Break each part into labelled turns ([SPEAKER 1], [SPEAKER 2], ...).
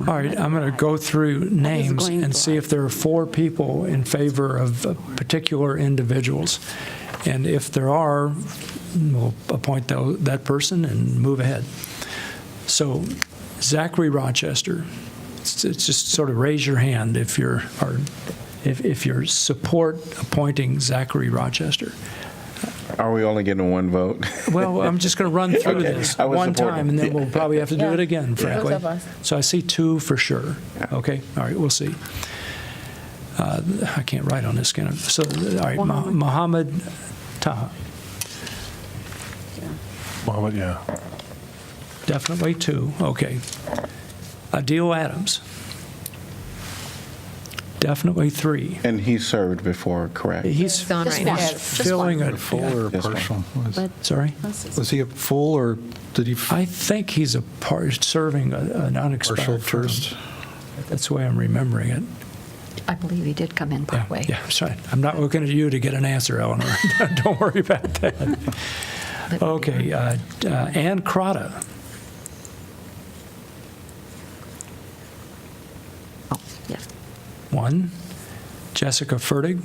[SPEAKER 1] All right, I'm going to go through names
[SPEAKER 2] going
[SPEAKER 1] and see if there are four people in favor of uh, particular individuals. And if there are, we'll appoint tho- that person and move ahead. So Zachary Rochester, it's it's just sort of raise your hand if you're, or if if you're support appointing Zachary Rochester.
[SPEAKER 3] Are we only getting one vote?
[SPEAKER 1] Well, I'm just going to run through
[SPEAKER 3] Okay,
[SPEAKER 1] this
[SPEAKER 3] I was
[SPEAKER 1] one
[SPEAKER 3] supporting.
[SPEAKER 1] time, and then we'll probably have to do
[SPEAKER 4] Yeah.
[SPEAKER 1] it again,
[SPEAKER 4] Yeah.
[SPEAKER 1] frankly.
[SPEAKER 4] Both of us.
[SPEAKER 1] So I see two for sure. Okay, all right, we'll see. Uh, I can't write on this scanner. So, all right, Mo- Mohammed Taha,
[SPEAKER 5] Mohammed, yeah.
[SPEAKER 1] definitely two, okay. Adil Adams, definitely three.
[SPEAKER 3] And he served before, correct?
[SPEAKER 1] He's
[SPEAKER 4] He's on right now.
[SPEAKER 1] he's
[SPEAKER 4] Just
[SPEAKER 1] filling
[SPEAKER 5] A
[SPEAKER 1] a,
[SPEAKER 5] full or a
[SPEAKER 3] Yes, ma'am.
[SPEAKER 5] partial? Was-
[SPEAKER 4] But-
[SPEAKER 1] sorry?
[SPEAKER 5] Was he a full or did he f-
[SPEAKER 1] I think he's a part, serving a- an
[SPEAKER 5] partial
[SPEAKER 1] unexpired term.
[SPEAKER 5] first?
[SPEAKER 1] That's the way I'm remembering it.
[SPEAKER 2] I believe he did come in
[SPEAKER 1] Yeah,
[SPEAKER 2] partway.
[SPEAKER 1] Yeah, sorry. I'm not looking at you to get an answer, Eleanor. Don't worry about that.
[SPEAKER 2] But-
[SPEAKER 1] Okay, uh, uh, Ann Crotta.
[SPEAKER 2] Oh, yes.
[SPEAKER 1] one. Jessica Fertig.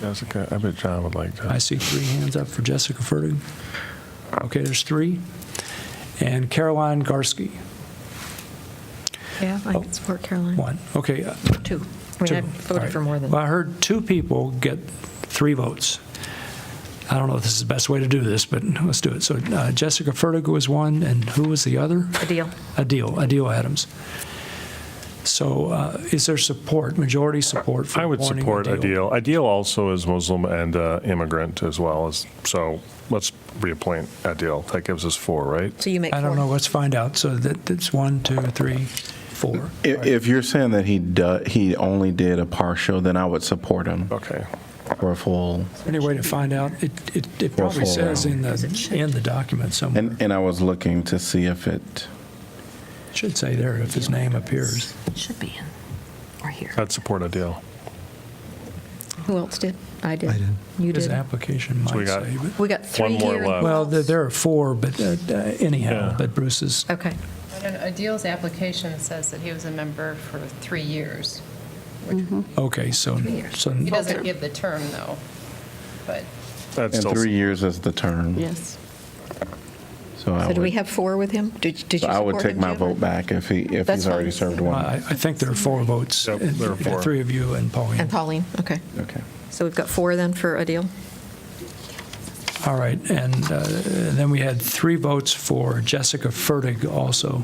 [SPEAKER 5] Jessica, I bet John would like
[SPEAKER 1] I see three hands up for Jessica Fertig. Okay, there's three. And Caroline Garsky,
[SPEAKER 4] Yeah, I
[SPEAKER 1] can
[SPEAKER 4] support Caroline.
[SPEAKER 1] one. Okay, uh,
[SPEAKER 2] Two.
[SPEAKER 4] I mean, I
[SPEAKER 1] Two. All
[SPEAKER 4] voted
[SPEAKER 1] right.
[SPEAKER 4] for more than.
[SPEAKER 1] Well, I heard two people get three votes. I don't know if this is the best way to do this, but let's do it. So uh, Jessica Fertig was one, and who was the other?
[SPEAKER 4] Adil.
[SPEAKER 1] Adil, Adil Adams. So uh, is there support, majority support for
[SPEAKER 6] I would
[SPEAKER 1] appointing
[SPEAKER 6] support
[SPEAKER 1] Adil?
[SPEAKER 6] Ideal. Ideal also is Muslim and uh, immigrant as well as, so let's reappoint Ideal. That gives us four, right?
[SPEAKER 4] So you make
[SPEAKER 1] I
[SPEAKER 4] four.
[SPEAKER 1] don't know, let's find out. So that, that's one, two, three, four.
[SPEAKER 3] If, if you're saying that he do, he only did a partial, then I would support him
[SPEAKER 6] Okay.
[SPEAKER 3] for a full.
[SPEAKER 1] Any way to find out? It, it it
[SPEAKER 3] Or
[SPEAKER 1] probably
[SPEAKER 3] full
[SPEAKER 1] says in
[SPEAKER 3] round.
[SPEAKER 1] the, in the document somewhere.
[SPEAKER 3] And, and I was looking to see if it,
[SPEAKER 1] It Should say there if his name appears.
[SPEAKER 2] Should be in, or here.
[SPEAKER 6] I'd support Ideal.
[SPEAKER 4] Who else did? I did.
[SPEAKER 5] I did.
[SPEAKER 4] You
[SPEAKER 1] His
[SPEAKER 4] did.
[SPEAKER 1] application
[SPEAKER 6] So we
[SPEAKER 1] might
[SPEAKER 6] got-
[SPEAKER 1] say. but-
[SPEAKER 4] We got three
[SPEAKER 6] One more
[SPEAKER 4] here. and
[SPEAKER 6] left.
[SPEAKER 4] who
[SPEAKER 1] Well, there-
[SPEAKER 4] else?
[SPEAKER 1] there are four, but uh, uh, anyhow,
[SPEAKER 6] Yeah.
[SPEAKER 1] but Bruce is,
[SPEAKER 4] Okay.
[SPEAKER 7] But in Adil's application says that he was a member for three years.
[SPEAKER 1] okay, so, so
[SPEAKER 7] He doesn't give the term, though, but
[SPEAKER 6] That's
[SPEAKER 3] and
[SPEAKER 6] still,
[SPEAKER 3] three years is the term.
[SPEAKER 4] Yes.
[SPEAKER 3] So I
[SPEAKER 4] So do we
[SPEAKER 3] would,
[SPEAKER 4] have four with him? Did, did
[SPEAKER 3] so
[SPEAKER 4] you
[SPEAKER 3] I would
[SPEAKER 4] support
[SPEAKER 3] take
[SPEAKER 4] him,
[SPEAKER 3] my
[SPEAKER 4] Jim?
[SPEAKER 3] vote back if he, if he's
[SPEAKER 4] That's fine. Uh,
[SPEAKER 3] already served
[SPEAKER 1] I, I
[SPEAKER 3] one.
[SPEAKER 1] think there are four votes. Uh,
[SPEAKER 6] Yep, there are four.
[SPEAKER 1] Three of you and Pauline.
[SPEAKER 4] And Pauline, okay.
[SPEAKER 3] Okay.
[SPEAKER 4] So we've got four then for Adil?
[SPEAKER 1] All right, and uh, then we had three votes for Jessica Fertig also.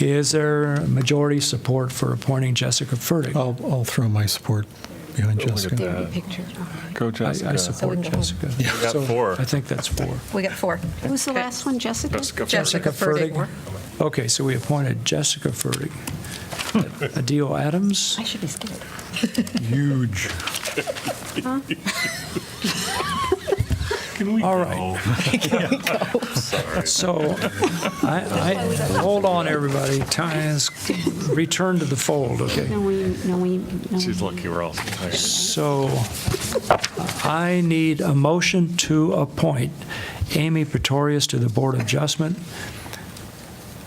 [SPEAKER 1] Is there majority support for appointing Jessica Fertig? I-
[SPEAKER 6] Oh,
[SPEAKER 5] I'll, I'll throw my support behind
[SPEAKER 6] Look at
[SPEAKER 5] Jessica.
[SPEAKER 6] that.
[SPEAKER 3] Uh,
[SPEAKER 4] There'd be pictures.
[SPEAKER 5] Go,
[SPEAKER 1] I support
[SPEAKER 4] can go home.
[SPEAKER 1] Jessica.
[SPEAKER 6] we got
[SPEAKER 1] So
[SPEAKER 6] four.
[SPEAKER 1] I think that's four.
[SPEAKER 4] We got four.
[SPEAKER 2] Who's the last one, Jessica?
[SPEAKER 6] Jessica
[SPEAKER 4] Jessica
[SPEAKER 1] Fertig.
[SPEAKER 4] Fertig. Moore.
[SPEAKER 1] Okay, so we appointed Jessica Fertig. Adil Adams,
[SPEAKER 2] I should be scared.
[SPEAKER 5] Huge.
[SPEAKER 6] Can we
[SPEAKER 1] All right. so I, I, hold on, everybody, time is, return to the fold, okay?
[SPEAKER 8] No, we, no, we, no.
[SPEAKER 6] She's lucky we're all.
[SPEAKER 1] So I need a motion to appoint Amy Pretorius to the Board of Adjustment,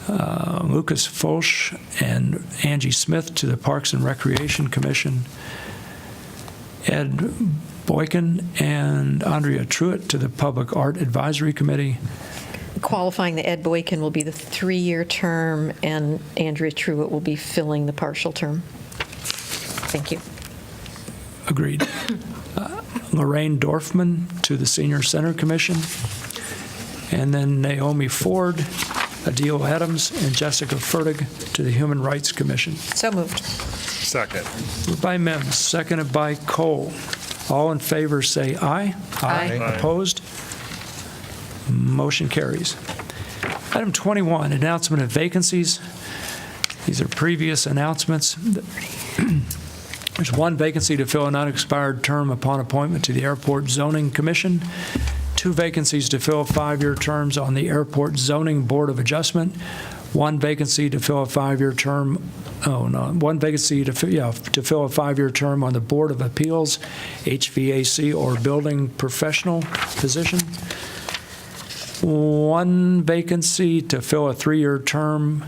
[SPEAKER 1] uh, Lucas Foch and Angie Smith to the Parks and Recreation Commission, Ed Boykin and Andrea Truitt to the Public Art Advisory Committee.
[SPEAKER 4] Qualifying the Ed Boykin will be the three-year term, and Andrea Truitt will be filling the partial term. Thank you.
[SPEAKER 1] Agreed. Uh, Lorraine Dorfman to the Senior Center Commission, and then Naomi Ford, Adil Adams, and Jessica Fertig to the Human Rights Commission.
[SPEAKER 4] So moved.
[SPEAKER 6] Second.
[SPEAKER 1] Moved by Mims, seconded by Cole. All in favor, say aye.
[SPEAKER 4] Aye.
[SPEAKER 1] Opposed? Motion carries. Item 21, announcement of vacancies. These are previous announcements. There's one vacancy to fill an unexpired term upon appointment to the Airport Zoning Commission, two vacancies to fill five-year terms on the Airport Zoning Board of Adjustment, one vacancy to fill a five-year term, oh, no, one vacancy to, fi- yeah, to fill a five-year term on the Board of Appeals, HVAC or Building Professional position, one vacancy to fill a three-year term